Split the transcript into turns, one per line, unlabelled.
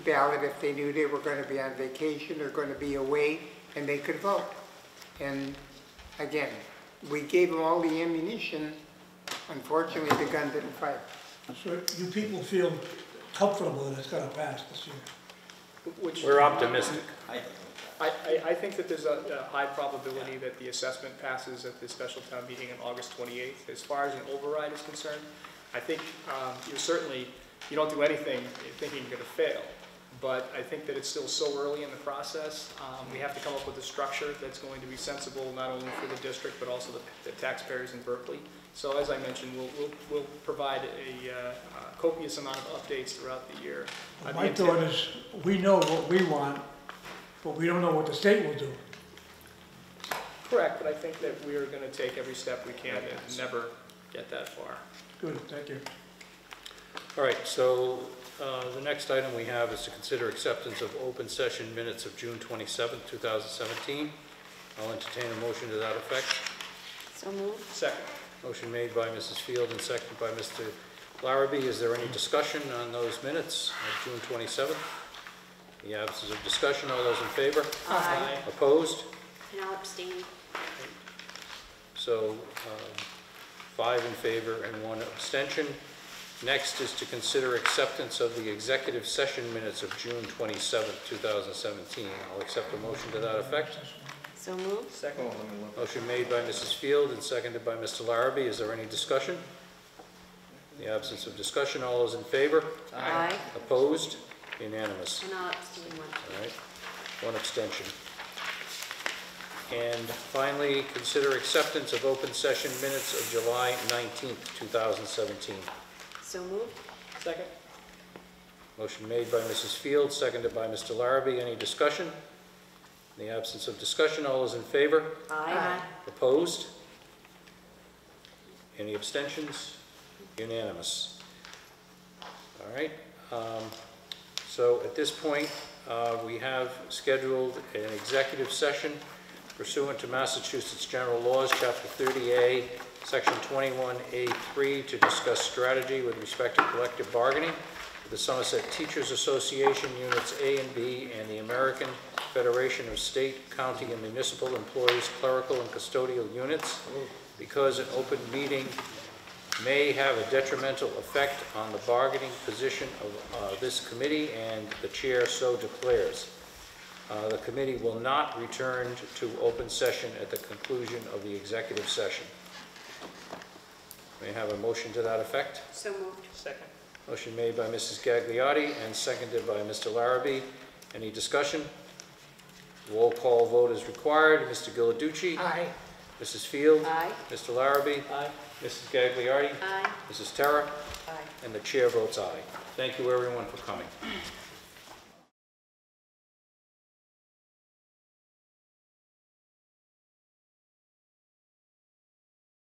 ballot if they knew they were going to be on vacation or going to be away, and they could vote. And again, we gave them all the ammunition. Unfortunately, the gun didn't fire.
So you people feel comfortable that it's gonna pass this year?
Which,
We're
I,
optimistic.
I, I think that there's a, a high probability that the assessment passes at the special town meeting on August 28th. As far as an override is concerned, I think um, you're certainly, you don't do anything thinking you're going to fail. But I think that it's still so early in the process. Um, We have to come up with a structure that's going to be sensible, not only for the district, but also the- the taxpayers in Berkeley. So as I mentioned, we'll, we'll, we'll provide a uh, copious amount of updates throughout the year. Uh, the
My
intent-
thought is, we know what we want, but we don't know what the state will do.
Correct, but I think that we are going to take every step we can and never get that far.
Good, thank you.
All right, so uh, the next item we have is to consider acceptance of open session minutes of June 27th, 2017. I'll entertain a motion to that effect.
So moved.
Second,
Motion made by Mrs. Field and seconded by Mr. Larrabee. Is there any discussion on those minutes of June 27th? The absence of discussion, all those in favor?
Aye.
Opposed?
And I'll abstain.
So um, five in favor and one abstention. Next is to consider acceptance of the executive session minutes of June 27, 2017. I'll accept a motion to that effect.
So moved.
second,
Motion made by Mrs. Field and seconded by Mr. Larrabee. Is there any discussion? In the absence of discussion, all those in favor?
Aye.
Opposed? Unanimous.
And I'll abstain one.
All right, one abstention. And finally, consider acceptance of open session minutes of July 19th, 2017.
So moved.
second,
Motion made by Mrs. Field, seconded by Mr. Larrabee. Any discussion? In the absence of discussion, all those in favor?
Aye.
Opposed? Any abstentions? Unanimous. All right, um, so at this point, uh, we have scheduled an executive session pursuant to Massachusetts General Laws, Chapter 30A, Section 21A3, to discuss strategy with respect to collective bargaining with the Somerset Teachers Association, Units A and B, and the American Federation of State, County, and Municipal Employees Clerical and Custodial Units, because an open meeting may have a detrimental effect on the bargaining position of uh, this committee, and the chair so declares. Uh, The committee will not return to open session at the conclusion of the executive session. May I have a motion to that effect?
So moved.
second.
Motion made by Mrs. Gagliotti and seconded by Mr. Larrabee. Any discussion? Roll call vote is required. Mr. Giliducci?
Aye.
Mrs. Field?
Aye.
Mr. Larrabee?
Aye.
Mrs. Gagliardi?
Aye.
Mrs. Terra?
Aye.
And the chair votes aye. Thank you, everyone, for coming.